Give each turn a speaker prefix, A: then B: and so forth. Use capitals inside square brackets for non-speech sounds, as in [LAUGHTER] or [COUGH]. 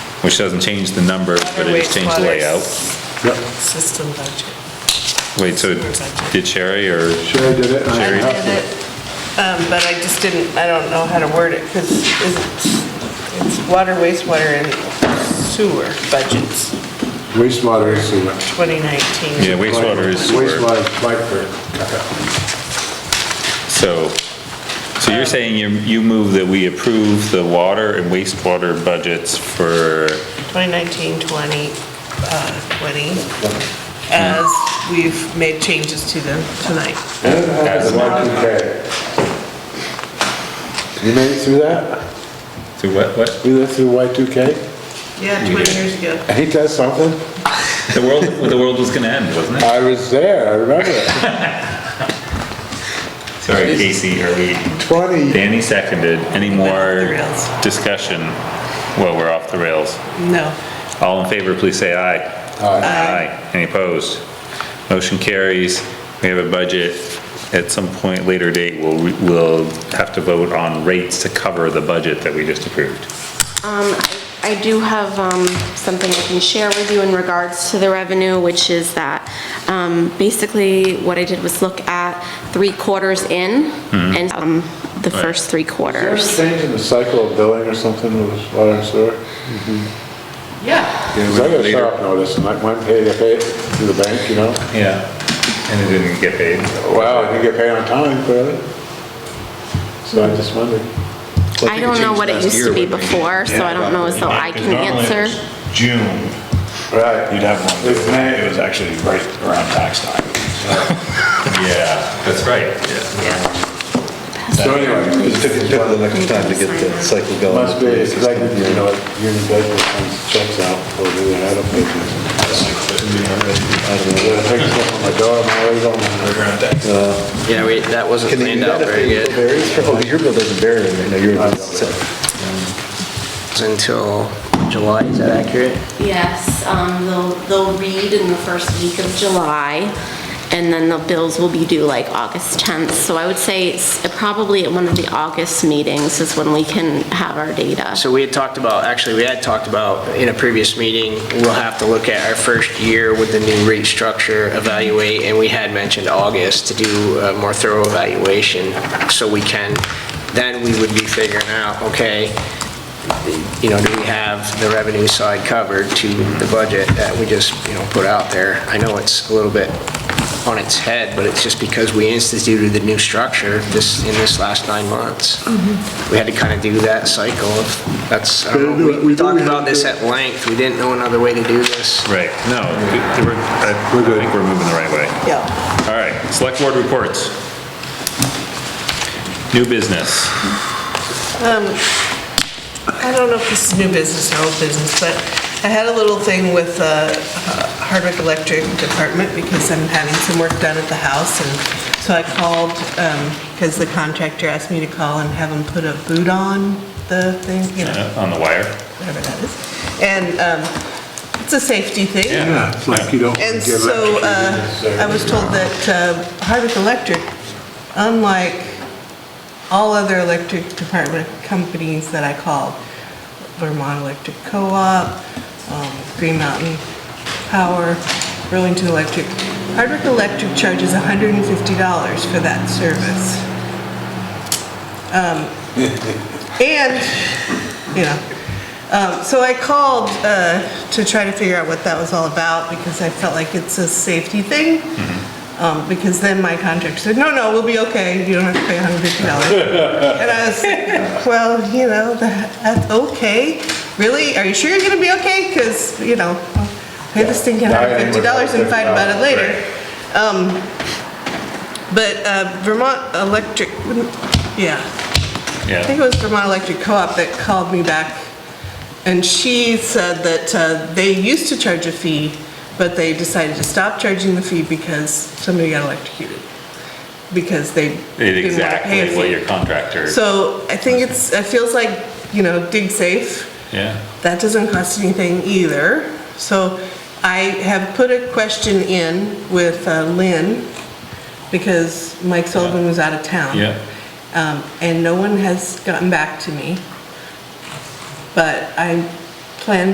A: which doesn't change the numbers, but it just changed the layout.
B: Yep,
C: System budget.
A: Wait, so did Sherry or,
B: Sherry did it. and I
C: I did
B: have to-
C: it, um, but I just didn't, I don't know how to word it, because it's water, wastewater, and sewer budgets,
B: Wastewater is sewer.
C: 2019.
A: yeah, wastewater is sewer.
B: Wastewater is pipe for caca.
A: So, so you're saying you, you move that we approve the water and wastewater budgets for,
C: 2019, 20, uh, 20, as we've made changes to them tonight.
B: And it has a Y two K. You made it through that?
A: to what, what?
B: We lived through Y two K?
C: Yeah,
A: You
C: 20
A: did.
C: years ago.
B: Ain't that something?
A: The world, the world was gonna end, wasn't it?
B: I was there, I remember it.
A: Sorry, Casey, are we?
B: Twenty,
A: Danny seconded. Any more
C: the rails.
A: discussion? Well, we're off the rails.
C: No.
A: All in favor, please say aye.
B: Aye.
A: Any opposed? Motion carries. We have a budget. At some point later date, we'll, we'll have to vote on rates to cover the budget that we just approved.
D: Um, I do have um, something I can share with you in regards to the revenue, which is that, um, basically, what I did was look at three quarters in, and um, the first three quarters.
B: changing the cycle of billing or something with water and sewer?
C: Yeah.
B: 'Cause I got a shut-off notice, and like, mine paid, I paid through the bank, you know?
A: Yeah. And it didn't get paid.
B: Wow, I didn't get paid on time, clearly. So I just wondered.
D: I don't know what it used to be before, so I don't know as though I can answer.
E: June,
B: Right.
E: you'd have one.
B: It's May.
E: It was actually right around tax
B: [LAUGHS]
E: time.
A: Yeah, that's right. Yeah.
B: So anyway,
F: It took, it took a long time to get the cycle going.
B: must be, because I can, you know, union budget comes checks out, or do I don't pay this. I take stuff on my door, my way on my...
G: Yeah, we, that wasn't
F: Can they do
G: planned out
F: that if
G: very
F: they
G: good
F: bill varies? [LAUGHS] Oh, your bill doesn't vary, I know your bill's set.
G: until July, is that accurate?
D: Yes, um, they'll, they'll read in the first week of July, and then the bills will be due like August 10th. So I would say it's probably at one of the August meetings is when we can have our data.
G: So we had talked about, actually, we had talked about in a previous meeting, we'll have to look at our first year with the new rate structure, evaluate, and we had mentioned August to do a more thorough evaluation, so we can, then we would be figuring out, okay, you know, do we have the revenue side covered to the budget that we just, you know, put out there? I know it's a little bit on its head, but it's just because we instituted the new structure this, in this last nine months. We had to kind of do that cycle of, that's, I don't know, we talked about this at length, we didn't know another way to do this.
A: Right, no, we- we're, I think we're moving the right way.
C: Yeah.
A: All right, select board reports. New business.
C: I don't know if this is new business or old business, but I had a little thing with the Hardwick Electric Department because I'm having some work done at the house. And so I called, because the contractor asked me to call and have him put a boot on the thing, you know,
A: Uh, On the wire?
C: whatever that is. And um, it's a safety thing.
B: Yeah, it's like you don't give
C: And
B: it.
C: so uh, I was told that uh, Hardwick Electric, unlike all other electric department companies that I called, Vermont Electric Co-op, um, Green Mountain Power, Burlington Electric, Hardwick Electric charges $150 for that service. Um,
B: [LAUGHS]
C: And, you know, um, So I called uh, to try to figure out what that was all about, because I felt like it's a safety thing.
B: Mm-hmm.
C: Um, Because then my contractor said, no, no, we'll be okay, you don't have to pay $150. And I was
B: [LAUGHS]
C: like, well, you know, that- that's okay, really? Are you sure you're gonna be okay? Because, you know, I'll pay this thing
B: Yeah, I
C: $150
B: ain't worried about
C: and fight about it
B: $50,
C: later. Um, But uh, Vermont Electric, yeah, I think
A: Yeah.
C: it was Vermont Electric Co-op that called me back, and she said that uh, they used to charge a fee, but they decided to stop charging the fee because somebody got electrocuted, because they didn't want to pay a
A: Exactly what your
C: fee.
A: contractor,
C: So I think it's, it feels like, you know, dig safe,
A: yeah.
C: that doesn't cost anything either. So I have put a question in with uh, Lynn, because Mike Sullivan was out of town.
A: Yeah.
C: Um, And no one has gotten back to me. But I plan